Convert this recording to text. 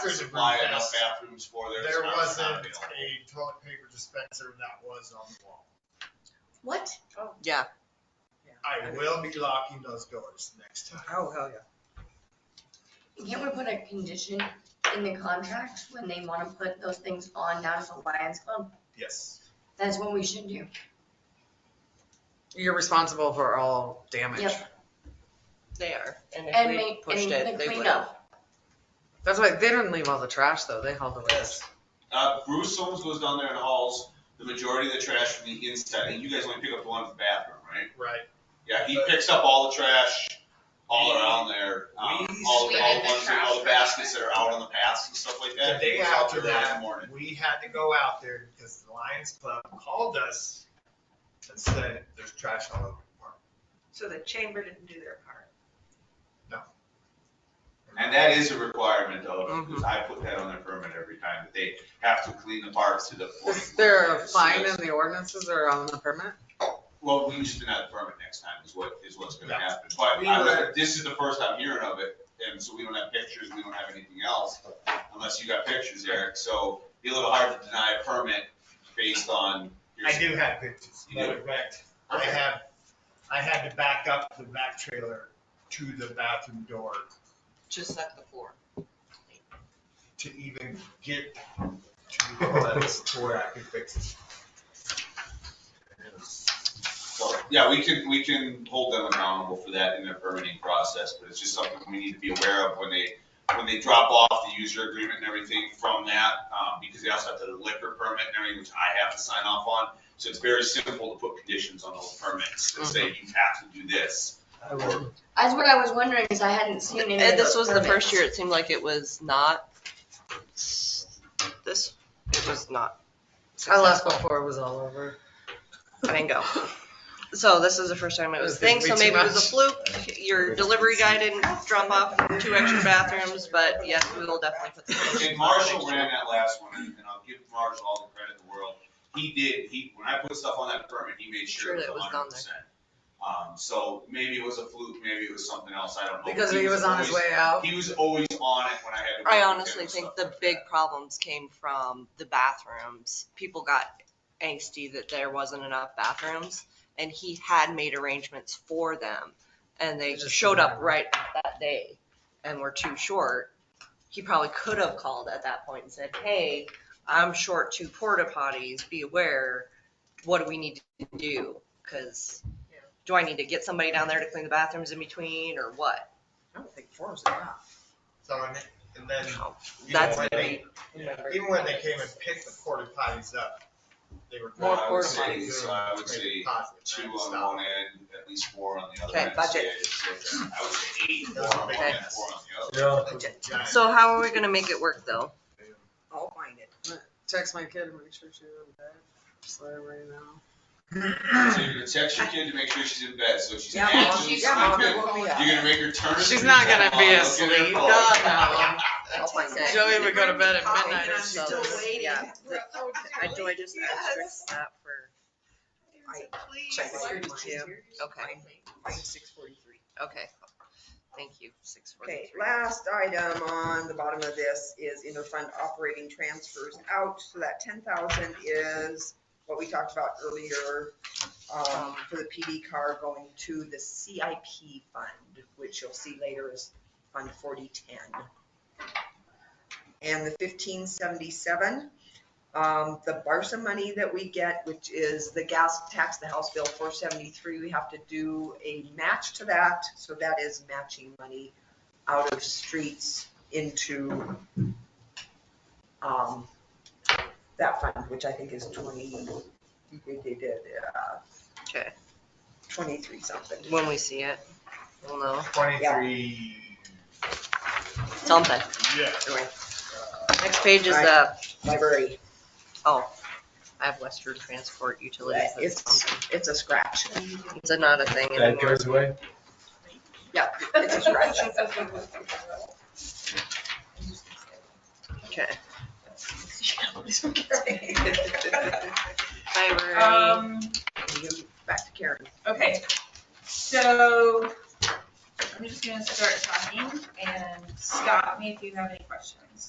could there's a supply room enough test. bathrooms for there. There it's wasn't not- a it's not available. toilet paper dispenser that was on the wall. What? Oh, Yeah. I will be locking those doors next time. Oh, hell yeah. Can't we put a condition in the contract when they wanna put those things on National Lions Club? Yes. That's what we should do. You're responsible for all damage. Yep. They are, and if And we make, pushed it, and the they would cleanup. have. That's why they didn't leave all the trash though. They hauled away. Yes. Uh, Bruce Holmes goes down there and hauls the majority of the trash from the inside, and you guys only pick up the one from the bathroom, right? Right. Yeah, he picks up all the trash all around there, um, We- all, all We the did the ones, trash all the for- baskets that are out on the paths and stuff like that. The day He goes out after there early in the that, morning. We had to go out there because the Lions Club called us and said, there's trash all over the park. So the chamber didn't do their part. And that is a requirement of, 'cause Mhm. I put that on their permit every time, that they have to clean the parks to the point. Is there where a it's- fine in the ordinances or on the permit? Well, we just deny the permit next time is what, is what's gonna Yeah. happen. But We I would- don't- this is the first I'm hearing of it, and so we don't have pictures, we don't have anything else, unless you got pictures, Eric. So be a little hard to deny a permit based on your. I do have pictures. You do? Matter of fact, I have, I had to back up the back trailer to the bathroom door Just at the floor. to even get to the toilets to where I could fix it. So, yeah, we can, we can hold them accountable for that in their permitting process, but it's just something we need to be aware of when they, when they drop off the user agreement and everything from that, um, because they also have the liquor permit and everything, which I have to sign off on. So it's very simple to put conditions on those permits that say Mm-hmm. you have to do this. I would- That's what I was wondering, is I hadn't seen any of And this those was the permits. first year, it seemed like it was not, this, it was not I left successful. before it was all over. I didn't go. So this is the first time it was a thing, so maybe it was a fluke. Your delivery guy didn't drop off two extra bathrooms, but yes, we will definitely put the. And Marshall ran that last one, and and I'll give Marshall all the credit in the world. He did, he, when I put stuff on that permit, he made sure it Sure, was that it was hundred done percent. Um, so maybe it was a fluke, maybe it was something else, I don't know. but Because he was on his always- way out. He was always on it when I had to. I work with him honestly and think stuff the like big that. problems came from the bathrooms. People got angsty that there wasn't enough bathrooms, and he had made arrangements for them, and They they just showed didn't up have right that day and were too short. He probably could have called at that point and said, hey, I'm short two porta potties, be aware, what do we need to do? Because, do I need to get somebody down there to clean the bathrooms in between, or what? I don't think four is enough. So, and and then, you know, Oh, That's when gonna they, be. even when they came and picked the porta potties up, they were. More I would porta say- potties. So I would say two on one end, at least four on the other Okay, end. budget. So yeah, I would say eight, four on one Okay. end, four on the other. So how are we gonna make it work, though? I'll find it. Text my kid and make sure she's in bed. Just let her right now. So you're gonna text your kid to make sure she's in bed, so if she's Yeah, actually sleeping, she's- yeah, you're Mom, gonna make her turn. She's her not screen gonna time be on, look at her phone. asleep. God, no. I'll find it. Joey would go to bed at Probably, midnight and or I'm still something. waiting. Yeah. We're- oh, I do, I just extra Yes. snap for, Please. Check Please. thirty-two. okay, Six forty-three. okay. Thank you, six Okay, forty-three. last item on the bottom of this is interfund operating transfers out, so that ten thousand is what we talked about earlier, um, for the PD car going to the CIP fund, which you'll see later is Fund forty-ten. And the fifteen seventy-seven, um, the Barca money that we get, which is the gas tax, the House Bill four seventy-three, we have to do a match to that, so that is matching money out of streets into, um, that fund, which I think is twenty, we did, uh, Okay, twenty-three something. when we see it, we'll know, Twenty-three, something. yeah. Next page is, Right. uh, Library, oh, I have Western Transport Utilities, that's it's, something. it's a scratch, It's not a thing anymore. away? yeah, it's a scratch. Okay. Library, Um, Back to Karen. okay, so I'm just gonna start talking and stop me if you have any questions.